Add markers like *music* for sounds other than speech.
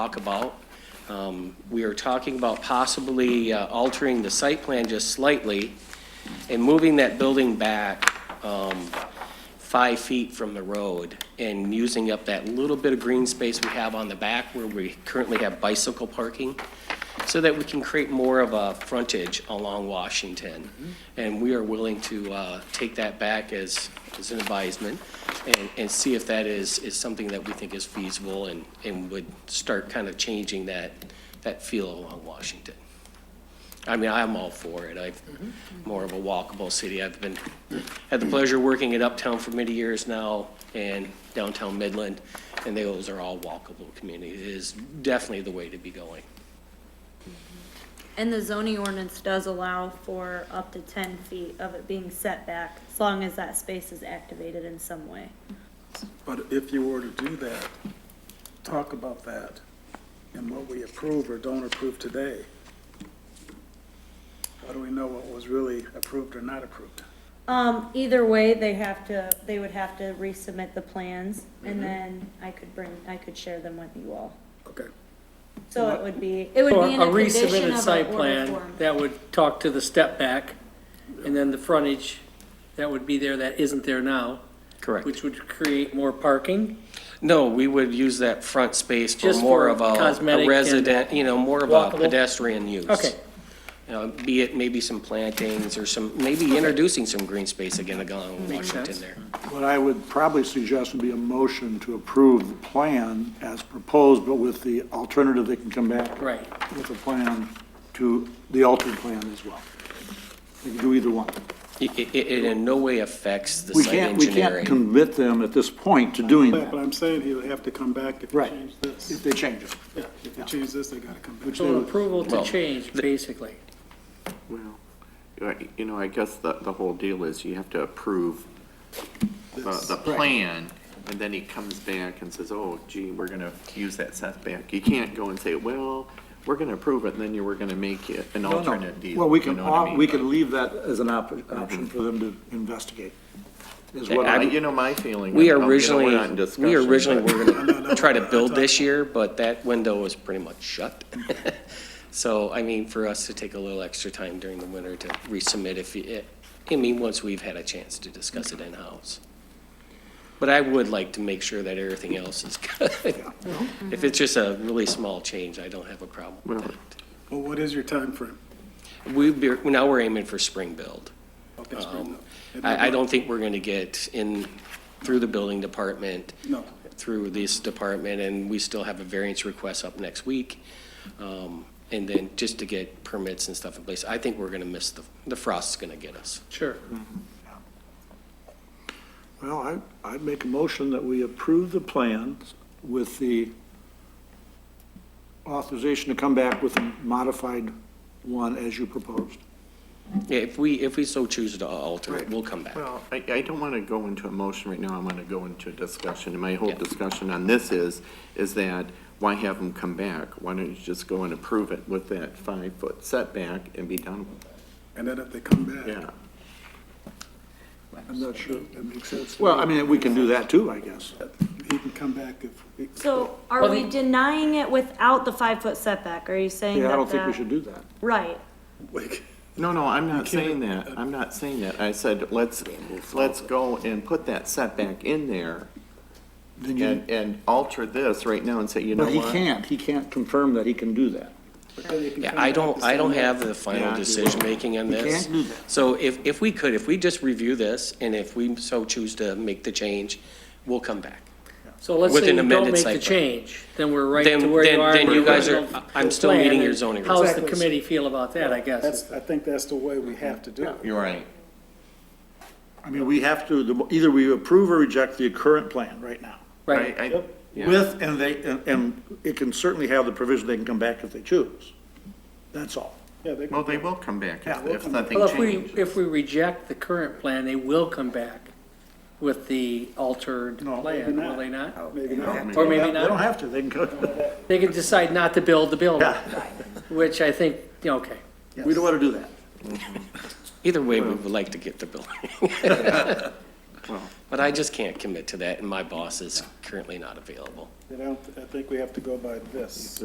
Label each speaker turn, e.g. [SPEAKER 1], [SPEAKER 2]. [SPEAKER 1] talk about. Um, We are talking about possibly uh, altering the site plan just slightly and moving that building back um, five feet from the road and using up that little bit of green space we have on the back where we currently have bicycle parking, so that we can create more of a frontage along Washington. And we are willing to uh, take that back as, as an advisement and, and see if that is, is something that we think is feasible and, and would start kind of changing that, that feel along Washington. I mean, I'm all for it. I've,
[SPEAKER 2] Mm-hmm.
[SPEAKER 1] more of a walkable city. I've been, had the pleasure of working at Uptown for many years now and downtown Midland, and those are all walkable communities. It is definitely the way to be going.
[SPEAKER 3] And the zoning ordinance does allow for up to ten feet of it being set back, as long as that space is activated in some way.
[SPEAKER 4] But if you were to do that, talk about that and what we approve or don't approve today. How do we know what was really approved or not approved?
[SPEAKER 3] Um, either way, they have to, they would have to resubmit the plans,
[SPEAKER 2] Mm-hmm.
[SPEAKER 3] and then I could bring, I could share them with you all.
[SPEAKER 4] Okay.
[SPEAKER 3] So it would be, it would
[SPEAKER 2] Or
[SPEAKER 3] be in
[SPEAKER 2] a
[SPEAKER 3] a condition
[SPEAKER 2] resubmitted
[SPEAKER 3] of
[SPEAKER 2] site
[SPEAKER 3] an order
[SPEAKER 2] plan
[SPEAKER 3] form.
[SPEAKER 2] that would talk to the step back, and then the frontage that would be there that isn't there now,
[SPEAKER 1] Correct.
[SPEAKER 2] which would create more parking.
[SPEAKER 1] No, we would use that front space for
[SPEAKER 2] Just
[SPEAKER 1] more
[SPEAKER 2] for
[SPEAKER 1] of a-
[SPEAKER 2] cosmetic
[SPEAKER 1] a
[SPEAKER 2] and
[SPEAKER 1] resident, you know, more of a
[SPEAKER 2] walkable?
[SPEAKER 1] pedestrian use.
[SPEAKER 2] Okay,
[SPEAKER 1] You know, Be it maybe some plantings or some, maybe introducing some green space again along
[SPEAKER 2] Makes
[SPEAKER 1] Washington
[SPEAKER 2] sense.
[SPEAKER 1] there.
[SPEAKER 5] What I would probably suggest would be a motion to approve the plan as proposed, but with the alternative, they can come back
[SPEAKER 2] right.
[SPEAKER 5] with a plan to, the altered plan as well. They can do either one.
[SPEAKER 1] It, it- it in no way affects the
[SPEAKER 5] We
[SPEAKER 1] site
[SPEAKER 5] can't, we can't
[SPEAKER 1] engineering.
[SPEAKER 5] commit them at this point to doing
[SPEAKER 4] But
[SPEAKER 5] that.
[SPEAKER 4] I'm saying he would have to come back if you
[SPEAKER 5] Right.
[SPEAKER 4] change this.
[SPEAKER 5] If they change it.
[SPEAKER 4] Yeah, if you change this, they gotta come back.
[SPEAKER 2] So an approval to
[SPEAKER 1] Well,
[SPEAKER 2] change, basically.
[SPEAKER 6] Well, I- you know, I guess the, the whole deal is you have to approve the, the plan, and then he comes back and says, oh gee, we're gonna use that setback. You can't go and say, well, we're gonna approve it, and then you were gonna make it an
[SPEAKER 5] No, no.
[SPEAKER 6] alternate deal.
[SPEAKER 5] Well, we
[SPEAKER 6] you
[SPEAKER 5] can,
[SPEAKER 6] know what I
[SPEAKER 5] op-
[SPEAKER 6] mean? Mm-hmm.
[SPEAKER 5] we can leave that as an op- option for them to investigate. Is what
[SPEAKER 6] Well,
[SPEAKER 5] I,
[SPEAKER 1] I'm-
[SPEAKER 6] you know, my feeling.
[SPEAKER 1] We
[SPEAKER 6] of- of, you know, we're
[SPEAKER 1] originally,
[SPEAKER 6] not in
[SPEAKER 1] we
[SPEAKER 6] discussion,
[SPEAKER 1] originally
[SPEAKER 6] but-
[SPEAKER 1] were gonna try to build this year, but that window was pretty much shut. *laughs* So, I mean, for us to take a little extra time during the winter to resubmit if, you- I mean, once we've had a chance to discuss it in-house. But I would like to make sure that everything else is *laughs* good. If it's just a really small change, I don't have a problem with
[SPEAKER 6] Well,
[SPEAKER 1] that.
[SPEAKER 4] Well, what is your timeframe?
[SPEAKER 1] We'd be, now we're aiming for spring build.
[SPEAKER 4] of this right now? And
[SPEAKER 1] Um, I, I
[SPEAKER 4] then-
[SPEAKER 1] don't think we're gonna get in, through the building department.
[SPEAKER 4] No.
[SPEAKER 1] Through this department, and we still have a variance request up next week. Um, and then just to get permits and stuff in place, I think we're gonna miss the, the frost's gonna get us.
[SPEAKER 2] Sure.
[SPEAKER 5] well, I, I'd make a motion that we approve the plans with the authorization to come back with a modified one as you proposed.
[SPEAKER 1] Yeah, if we, if we so choose to alter it,
[SPEAKER 5] Right.
[SPEAKER 1] we'll come back.
[SPEAKER 6] Well, I, I don't want to go into a motion right now, I want to go into a discussion. And my whole
[SPEAKER 1] Yeah.
[SPEAKER 6] discussion on this is, is that why have them come back? Why don't you just go and approve it with that five-foot setback and be done with it?
[SPEAKER 4] And then if they come back.
[SPEAKER 6] Yeah.
[SPEAKER 5] I'm not sure that makes sense. Well, I mean, we can do that too, I guess.
[SPEAKER 4] He can come back if. we-
[SPEAKER 3] So are we denying it without the five-foot setback? Are you saying that
[SPEAKER 5] Yeah, I don't think we
[SPEAKER 3] that-
[SPEAKER 5] should do that.
[SPEAKER 3] Right.
[SPEAKER 4] Like,
[SPEAKER 6] No, no, I'm not
[SPEAKER 4] can't-
[SPEAKER 6] saying that, I'm not saying that. I said, let's, let's go and put that setback in there
[SPEAKER 5] Then you,
[SPEAKER 6] and, and alter this right now and say, you know
[SPEAKER 5] but
[SPEAKER 6] what?
[SPEAKER 5] he can't, he can't confirm that he can do that.
[SPEAKER 4] but then they can
[SPEAKER 1] Yeah,
[SPEAKER 4] come
[SPEAKER 1] I
[SPEAKER 4] back
[SPEAKER 1] don't,
[SPEAKER 4] the
[SPEAKER 1] I
[SPEAKER 4] same
[SPEAKER 1] don't
[SPEAKER 4] way.
[SPEAKER 1] have the
[SPEAKER 6] Yeah,
[SPEAKER 1] final
[SPEAKER 6] I do.
[SPEAKER 1] decision-making on
[SPEAKER 5] We
[SPEAKER 1] this.
[SPEAKER 5] can't do that.
[SPEAKER 1] So if, if we could, if we just review this, and if we so choose to make the change, we'll come back.
[SPEAKER 2] So let's
[SPEAKER 1] With
[SPEAKER 2] say
[SPEAKER 1] an
[SPEAKER 2] you
[SPEAKER 1] amended
[SPEAKER 2] don't make
[SPEAKER 1] site
[SPEAKER 2] the
[SPEAKER 1] plan.
[SPEAKER 2] change, then we're right to
[SPEAKER 1] Then-
[SPEAKER 2] where
[SPEAKER 1] then-
[SPEAKER 2] you are.
[SPEAKER 1] then
[SPEAKER 2] and
[SPEAKER 1] you
[SPEAKER 2] we're
[SPEAKER 1] guys
[SPEAKER 2] right
[SPEAKER 1] are-
[SPEAKER 2] to
[SPEAKER 1] I'm
[SPEAKER 2] the
[SPEAKER 1] still
[SPEAKER 2] plan,
[SPEAKER 1] meeting
[SPEAKER 2] and
[SPEAKER 1] your zoning
[SPEAKER 2] How's the
[SPEAKER 4] requirements.
[SPEAKER 2] committee feel about that, I guess?
[SPEAKER 4] That's, I think that's the way we have to do it.
[SPEAKER 6] You're right.
[SPEAKER 5] I mean, we have to, the- either we approve or reject the current plan right now.
[SPEAKER 2] Right,
[SPEAKER 6] I- I-
[SPEAKER 4] Yep.
[SPEAKER 6] Yeah.
[SPEAKER 5] With, and they, and- and it can certainly have the provision they can come back if they choose. That's all.
[SPEAKER 4] Yeah, they
[SPEAKER 6] Well,
[SPEAKER 4] can,
[SPEAKER 6] they will come back
[SPEAKER 5] Yeah,
[SPEAKER 6] if,
[SPEAKER 5] we'll
[SPEAKER 6] if
[SPEAKER 5] come back.
[SPEAKER 6] nothing
[SPEAKER 2] well, if we,
[SPEAKER 6] changes.
[SPEAKER 2] if we reject the current plan, they will come back with the altered
[SPEAKER 5] No,
[SPEAKER 2] plan,
[SPEAKER 4] maybe
[SPEAKER 2] will
[SPEAKER 4] not.
[SPEAKER 2] they not?
[SPEAKER 4] maybe not.
[SPEAKER 2] Or maybe
[SPEAKER 5] They don't
[SPEAKER 2] not,
[SPEAKER 5] have to, they can *laughs* go,
[SPEAKER 2] they can decide not to build the building, which I think, yeah, okay.
[SPEAKER 5] we don't want to do that.
[SPEAKER 1] *laughs* Either way, we would like to get the building. But I just can't commit to that, and my boss is currently not available.
[SPEAKER 4] I don't, I think we have to go by this.